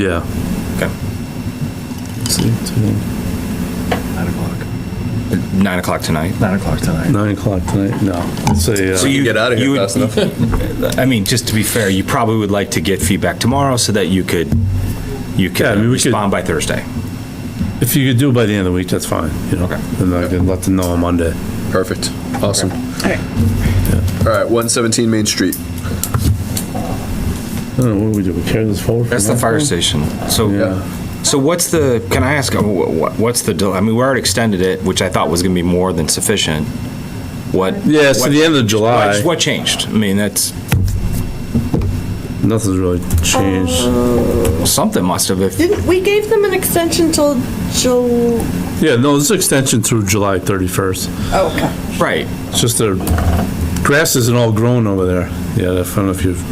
Yeah. Okay. Nine o'clock. Nine o'clock tonight. Nine o'clock tonight. Nine o'clock tonight, no. Let's say, So uh, you get out of here you fast would, I mean, just to be fair, you probably would like to get feedback tomorrow so that you could you could Yeah, I mean, we could- respond by Thursday. if you could do it by the end of the week, that's fine, you know? Okay. Then I can let them know on Monday. Perfect. Awesome. All right. All right, 117 Main Street. I don't know, what do we do, we carry this forward? for That's the now? fire station. So Yeah. so what's the? Can I ask? uh, wha- wha- What's the? del- I mean, we already extended it, which I thought was going to be more than sufficient. What? Yeah, it's what- to the end of July, What, what changed? I mean, that's nothing's really changed. Uh. something must have. If, Didn't, we gave them an extension till Jul, Yeah, no, this is extension through July 31st. oh, okay. right. It's just the grass isn't all grown over there. Yeah, I don't know if you've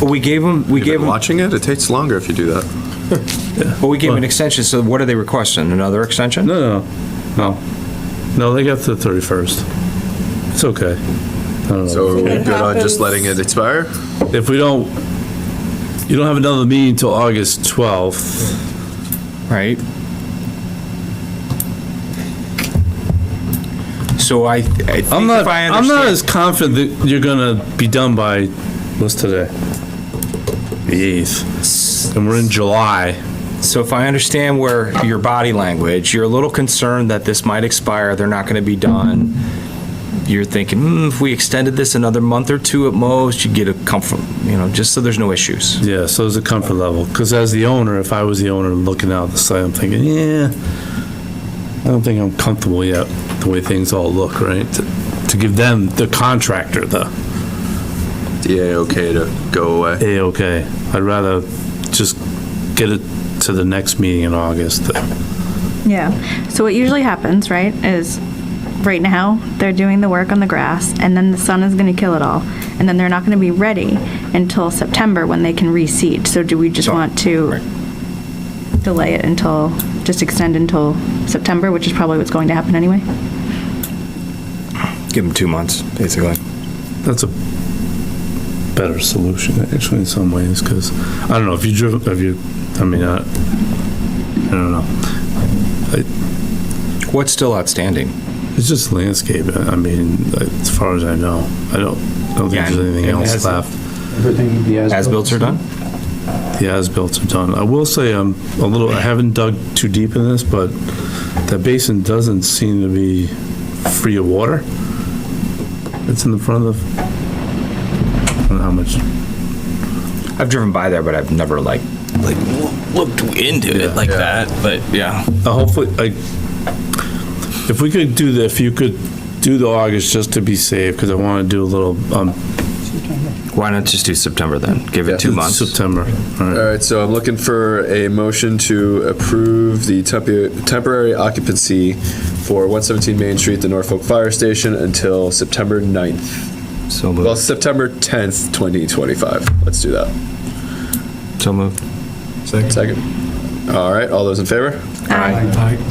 But we gave them. We gave Been them. watching it? It takes longer if you do that. But we gave them an extension. So what are they requesting? Another extension? No, no, no. No, they got to the 31st. It's okay. So are we It good on happens. just letting it expire? If we don't, you don't have another meeting till August 12th. Right. So I. I think I'm not, If I I'm not understand- as confident that you're gonna be done by, what's today? The 8th. And we're in July. So if I understand where your body language, you're a little concerned that this might expire, they're not going to be done. You're thinking, hmm, if we extended this another month or two at most, you'd get a comfort, you know, just so there's no issues. Yeah, so it's a comfort level. Because as the owner, if I was the owner looking out the side, I'm thinking, yeah, I don't think I'm comfortable yet, the way things all look, right? To- To give them, the contractor, the, DA okay to go away? hey, okay, I'd rather just get it to the next meeting in August. Yeah. So what usually happens, right, is right now they're doing the work on the grass and then the sun is going to kill it all. And then they're not going to be ready until September when they can reseed. So do we just So- want to right. delay it until, just extend until September, which is probably what's going to happen anyway? Give them two months, basically. That's a better solution, actually, in some ways, because, I don't know, if you drove, if you, I mean, I, I don't know. What's still outstanding? It's just landscape, I mean, as far as I know, I don't, I don't think Yeah, there's anything it else has- left. Everything, the as. As builds are done? The as-built are done. I will say, I'm a little, I haven't dug too deep in this, but that basin doesn't seem to be free of water. It's in the front of, the- I don't know how much, I've driven by there, but I've never like, like looked into it like that, but yeah. uh, hopefully, like, if we could do the, if you could do the August just to be safe, because I want to do a little, um, Why not just do September then? Give it Yeah. two months. September. All All right. right, so I'm looking for a motion to approve the temp- temporary occupancy for 117 Main Street, the Norfolk Fire Station, until September 9th. So Well, moved. September 10th, 2025. Let's do that. So moved. Second. All right, all those in favor?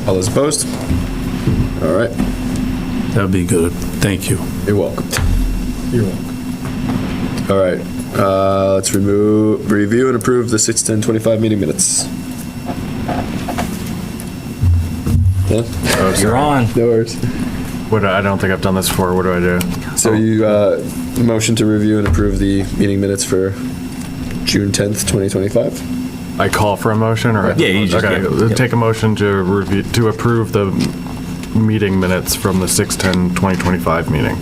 All those opposed? All right, That'd be good. Thank you. you're welcome. You're welcome. All right, uh, let's remove, review and approve the 6:10:25 meeting minutes. Yeah, You're on. no worries. What, do- I don't think I've done this before. What do I do? So you, uh, motion to review and approve the meeting minutes for June 10th, 2025? I call for a motion or? Yeah, you just- Okay, yeah, yeah. Take a motion to review, to approve the meeting minutes from the 6/10/2025 meeting.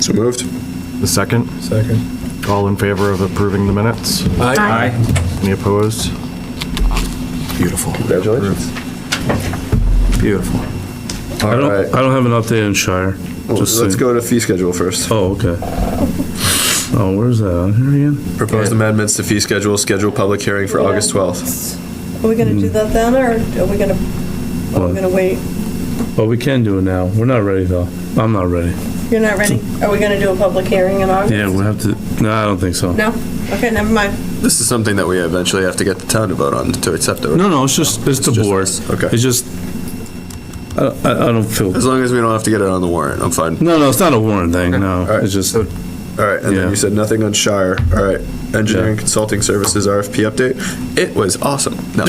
So moved. The second, Second. all in favor of approving the minutes? Aye. Any opposed? Beautiful. Congratulations. Beautiful. I All don't, right, I don't have an update on Shire. Well, Just let's so- go to fee schedule first. Oh, okay. Oh, where's that? On here again? Proposed amendments to fee schedule, schedule public hearing for August 12th. Are we gonna do that then, or are we gonna, are Hmm. What? we gonna wait? Well, Oh, we can do it now. We're not ready though. I'm not ready. You're not ready? Are we gonna do a public hearing in August? Yeah, we'll have to, no, I don't think so. No? Okay, never mind. This is something that we eventually have to get the town to vote on to accept it. No, no, it's just, it's the just board. us. Okay. It's just, I, I I don't feel, As long as we don't have to get it on the warrant, I'm fine. no, no, it's not a warrant thing, no. All right. It's just, So All right, and then Yeah. you said nothing on Shire. All right, engineering consulting services RFP update. It was awesome. No.